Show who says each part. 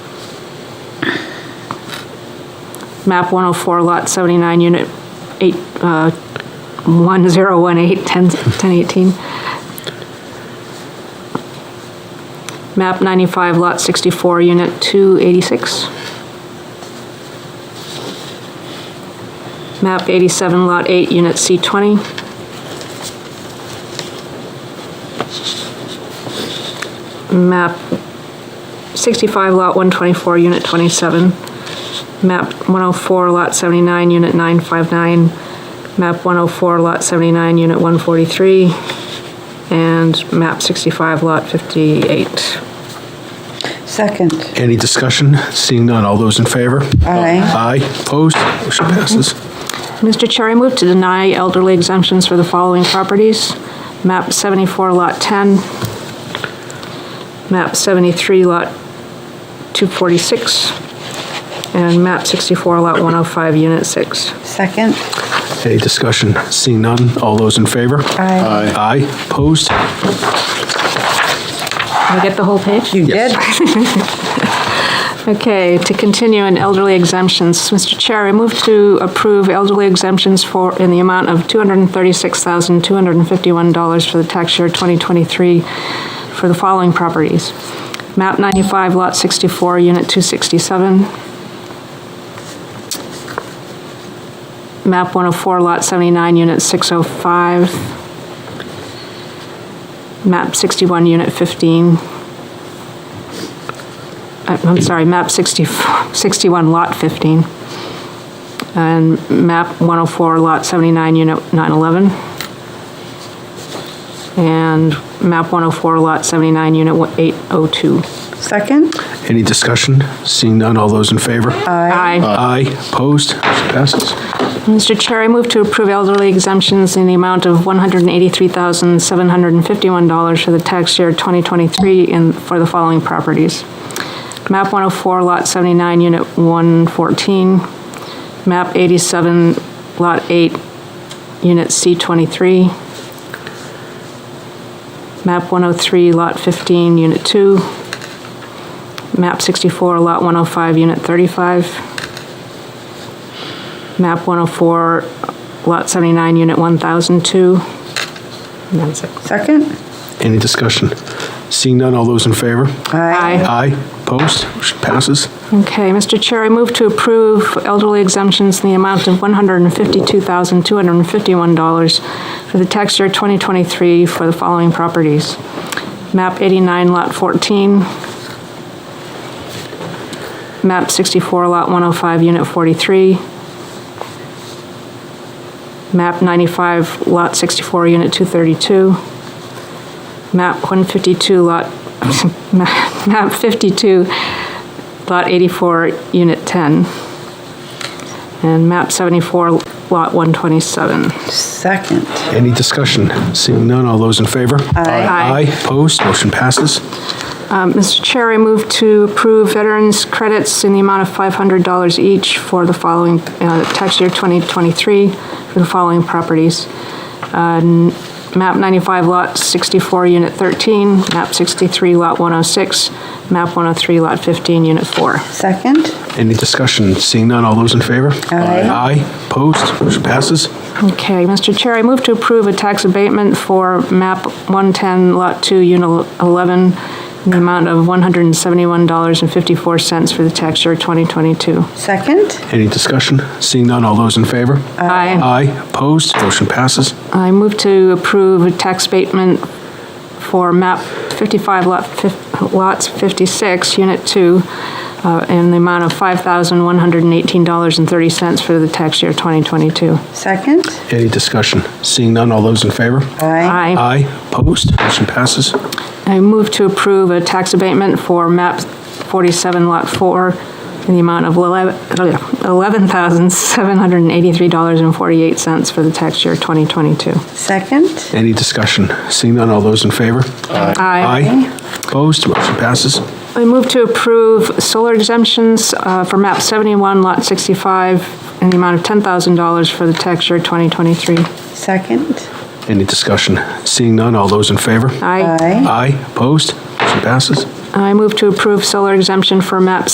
Speaker 1: map 104, lot 79, unit 8, uh, 1018, 10 1018. Map 95, lot 64, unit 286. Map 87, lot 8, unit C20. Map 65, lot 124, unit 27 map 104, lot 79, unit 959, map 104, lot 79, unit 143, and map 65, lot 58.
Speaker 2: Second.
Speaker 3: Any discussion? Seeing none, all those in favor?
Speaker 2: Aye.
Speaker 3: Aye, opposed, motion passes.
Speaker 1: Mr. Chair, I move to deny elderly exemptions for the following properties. Map 74, lot 10. Map 73, lot 246. And map 64, lot 105, unit 6.
Speaker 2: Second.
Speaker 3: Any discussion? Seeing none, all those in favor?
Speaker 2: Aye.
Speaker 3: Aye, opposed,
Speaker 1: Can I get the whole page?
Speaker 2: You did?
Speaker 1: Okay, to continue in elderly exemptions, Mr. Chair, I move to approve elderly exemptions for, in the amount of $236,251 for the tax year 2023 for the following properties. MAP 95, Lot 64, Unit 267. MAP 104, Lot 79, Unit 605. MAP 61, Unit 15. I- I'm sorry, map 60 61, lot 15, and map 104, lot 79, unit 911, and map 104, lot 79, unit 802.
Speaker 2: Second.
Speaker 3: any discussion? Seeing none, all those in favor?
Speaker 1: Aye.
Speaker 3: Aye, opposed, motion passes.
Speaker 1: Mr. Chair, I move to approve elderly exemptions in the amount of $183,751 for the tax year 2023 in, for the following properties. MAP 104, Lot 79, Unit 114. MAP 87, Lot 8, Unit C23. MAP 103, Lot 15, Unit 2. MAP 64, Lot 105, Unit 35. MAP 104, Lot 79, Unit 1002. And That's it.
Speaker 2: Second.
Speaker 3: Any discussion? Seeing none, all those in favor?
Speaker 1: Aye.
Speaker 3: Aye, opposed, motion passes.
Speaker 1: Okay, Mr. Chair, I move to approve elderly exemptions in the amount of $152,251 for the tax year 2023 for the following properties. MAP 89, Lot 14. MAP 64, Lot 105, Unit 43. MAP 95, Lot 64, Unit 232. MAP 152, Lot, MAP 52, Lot 84, Unit 10. And map 74, Lot 127.
Speaker 2: Second.
Speaker 3: Any discussion? Seeing none, all those in favor?
Speaker 1: Aye.
Speaker 3: Aye, opposed, motion passes.
Speaker 1: Um, Mr. Chair, I move to approve veterans' credits in the amount of $500 each for the following, uh, tax year 2023, for the following properties. Uh, n- Map 95, Lot 64, Unit 13, map 63, Lot 106, map 103, Lot 15, Unit 4.
Speaker 2: Second.
Speaker 3: Any discussion? Seeing none, all those in favor?
Speaker 2: Aye.
Speaker 3: Aye, opposed, motion passes.
Speaker 1: Okay, Mr. Chair, I move to approve a tax abatement for map 110, lot 2, unit 11, in the amount of $171.54 for the tax year 2022.
Speaker 2: Second.
Speaker 3: Any discussion? Seeing none, all those in favor?
Speaker 1: Aye.
Speaker 3: Aye, opposed, motion passes.
Speaker 1: I move to approve a tax abatement for map 55, lot fif- lots 56, unit 2, uh, in the amount of $5,118.30 for the tax year 2022.
Speaker 2: Second.
Speaker 3: Any discussion? Seeing none, all those in favor?
Speaker 1: Aye.
Speaker 2: Aye.
Speaker 3: Aye, opposed, motion passes.
Speaker 1: I move to approve a tax abatement for MAP 47, Lot 4, in the amount of eleven- $11,783.48 for the tax year 2022.
Speaker 2: Second.
Speaker 3: Any discussion? Seeing none, all those in favor? Aye, opposed, motion passes.
Speaker 1: I move to approve solar exemptions uh, for MAP 71, Lot 65, in the amount of $10,000 for the tax year 2023.
Speaker 2: Second.
Speaker 3: Any discussion? Seeing none, all those in favor?
Speaker 1: Aye.
Speaker 2: Aye.
Speaker 3: Aye, opposed, motion passes.
Speaker 1: I move to approve solar exemption for MAP